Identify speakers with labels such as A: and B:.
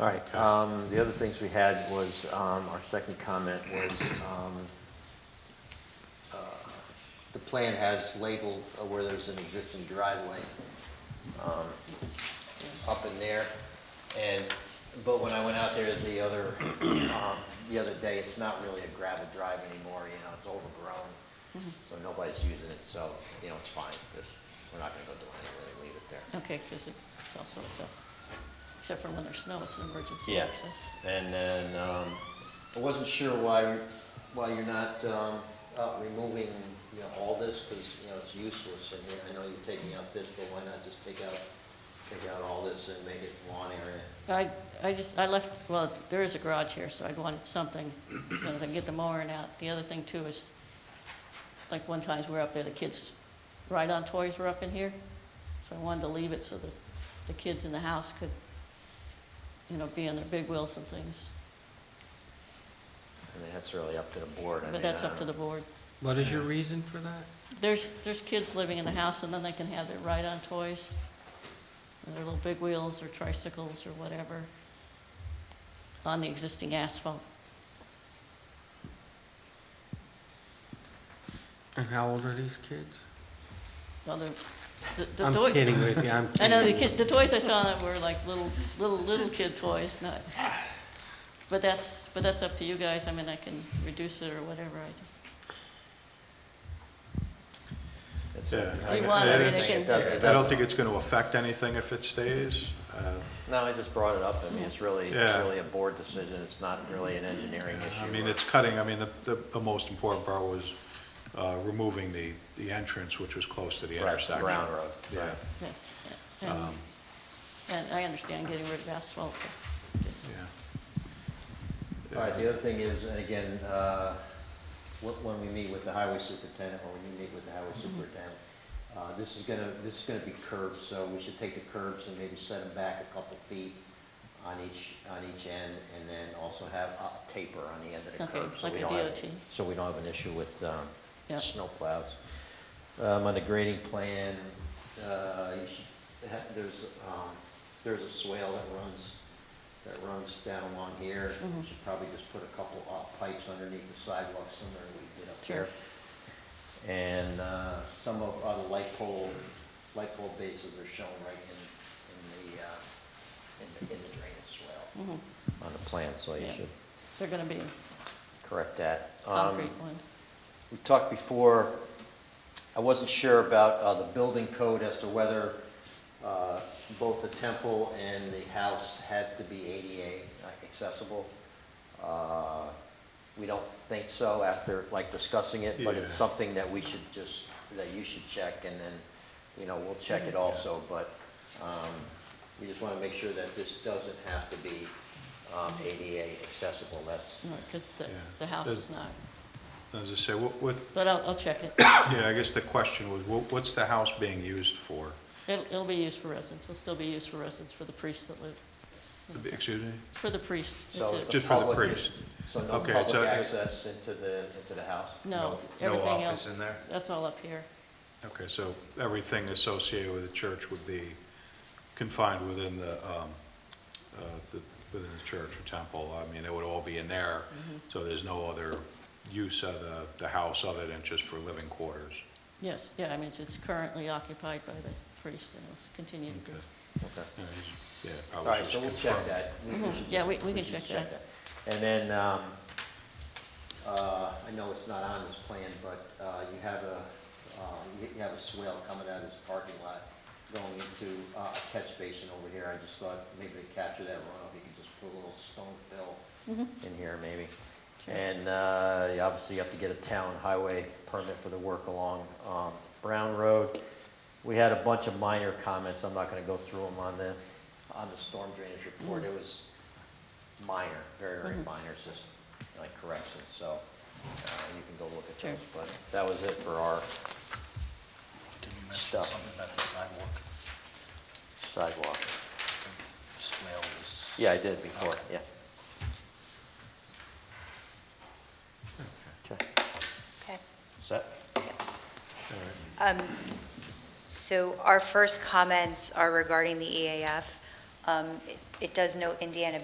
A: All right, um, the other things we had was, um, our second comment was, um, uh, the plan has labeled uh, where there's an existing driveway, um, up in there. And, but when I went out there the other, um, the other day, it's not really a gravel drive anymore, you know, it's overgrown. So nobody's using it, so, you know, it's fine, just, we're not gonna go do anything, leave it there.
B: Okay, because it's also, it's a, except for when there's snow, it's an emergency
A: Yeah,
B: access.
A: and then, um, I wasn't sure why, why you're not, um, uh, removing, you know, all this, because, you know, it's useless, and you- I know you're taking out this, but why not just take out, take out all this and make it lawn area?
B: I, I just, I left, well, there is a garage here, so I wanted something, you know, to get the mowing out. The other thing too is, like one times we were up there, the kids' ride-on toys were up in here. So I wanted to leave it so that the kids in the house could, you know, be on their big wheels and things.
A: I mean, that's really up to the board, I mean. uh,
B: But that's
A: I
B: up to the
A: don't-
B: board.
C: What is your reason for that?
B: There's, there's kids living in the house, and then they can have their ride-on toys, and their little big wheels or tricycles or whatever, on the existing asphalt.
C: And how old are these kids?
B: Well, the, the- the
C: I'm
B: toy-
C: kidding with you, I'm
B: I
C: kidding.
B: know, the kid, the toys I saw that were like little, little, little kid toys, not, but that's, but that's up to you guys, I mean, I can reduce it or whatever, I just.
A: It's
D: Yeah,
A: up to-
B: Do you
D: like I
B: want-
D: said,
B: I mean,
D: it's-
B: it
A: It doesn't- it
D: I don't
A: doesn't-
D: think it's going to affect anything if it stays. Uh,
A: No, I just brought it up, I mean, it's really, it's
D: Yeah.
A: really a board decision, it's not really an engineering issue.
D: I mean,
A: or-
D: it's cutting, I mean, the- the, the most important part was uh, removing the, the entrance, which was close to the
A: Right,
D: intersection.
A: Brown Road,
D: Yeah,
A: right.
B: Yes, and, and I understand getting rid of asphalt, but just,
D: yeah.
A: All right, the other thing is, and again, uh, wh- when we meet with the highway superintendent, or when you meet with the
B: Mm-hmm.
A: highway superintendent, uh, this is gonna, this is gonna be curbs, so we should take the curbs and maybe set them back a couple feet on each, on each end, and then also have up taper on the end of the
B: Okay,
A: curb. so
B: like
A: we
B: a
A: don't have-
B: DOT.
A: So we don't have an issue with um,
B: Yeah.
A: snowplows. Um, On the grading plan, uh, you should, ha- there's, um, there's a swale that runs, that runs down along here. We
B: Mhm.
A: should probably just put a couple of pipes underneath the sidewalk similar to what we did up
B: Sure.
A: there. And uh, some of uh, the light pole, light pole bases are shown right in, in the, uh, in the in the drainage swale
B: mhm,
A: on the plan, so you
B: Yeah.
A: should
B: they're gonna be
A: correct that. Um,
B: concrete ones.
A: we talked before, I wasn't sure about uh, the building code as to whether uh, both the temple and the house had to be ADA accessible. Uh, We don't think so after, like, discussing it, but it's
D: Yeah.
A: something that we should just, that you should check, and then, you know, we'll check it also, but um, we just want to make sure that this doesn't have to be um, ADA accessible, that's,
B: Because the,
D: Yeah.
B: the house
D: Does-
B: is not,
D: As I say, what, what,
B: but I'll, I'll check it.
D: yeah, I guess the question was, what- what's the house being used for?
B: It'll, it'll be used for residents, it'll still be used for residents, for the priests that live. It's
D: Excuse me?
B: it's for the priests, that's
A: So it's
B: it.
D: Just for the
A: public-
D: priest.
A: So no
D: Okay, it's
A: public
D: a-
A: access into the, into the house?
B: No,
E: No
B: everything
E: office
B: else,
E: in there?
B: that's all up here.
D: Okay, so everything associated with the church would be confined within the, um, uh, the- within the church or temple. I mean, it would all be in there,
A: Mm-hmm.
D: so there's no other use of the, the house other than just for living quarters.
B: Yes, yeah, I mean, it's- it's currently occupied by the priest and it's continued.
D: Okay.
A: Okay.
D: Yeah, he's- Yeah,
A: All
D: I
A: right,
D: was
A: so
D: just
A: we'll check
D: confirming.
A: that. We- we should
B: Yeah,
A: just-
B: we- we can
A: should
B: check that.
A: And then, um, uh, I know it's not on this plan, but uh, you have a, uh, you you have a swale coming out of this parking lot going into uh, a catch basin over here. I just thought maybe to capture that runoff, you could just put a little stone fill
B: Mm-hmm.
A: in here maybe.
B: Sure.
A: And uh, you obviously, you have to get a town highway permit for the work along um, Brown Road. We had a bunch of minor comments, I'm not going to go through them on the, on the storm drainage report. It was minor, very, very minor, it's just like corrections, so uh, you can go look at
B: Sure.
A: those. But that was it for our
E: Did you
A: mention Stuff. something
E: about the sidewalk?
A: sidewalk. Yeah, I did before, yeah. Okay,
F: Okay.
A: set?
F: Um, So E our first comments are regarding the EAF. Um, it- It does note Indiana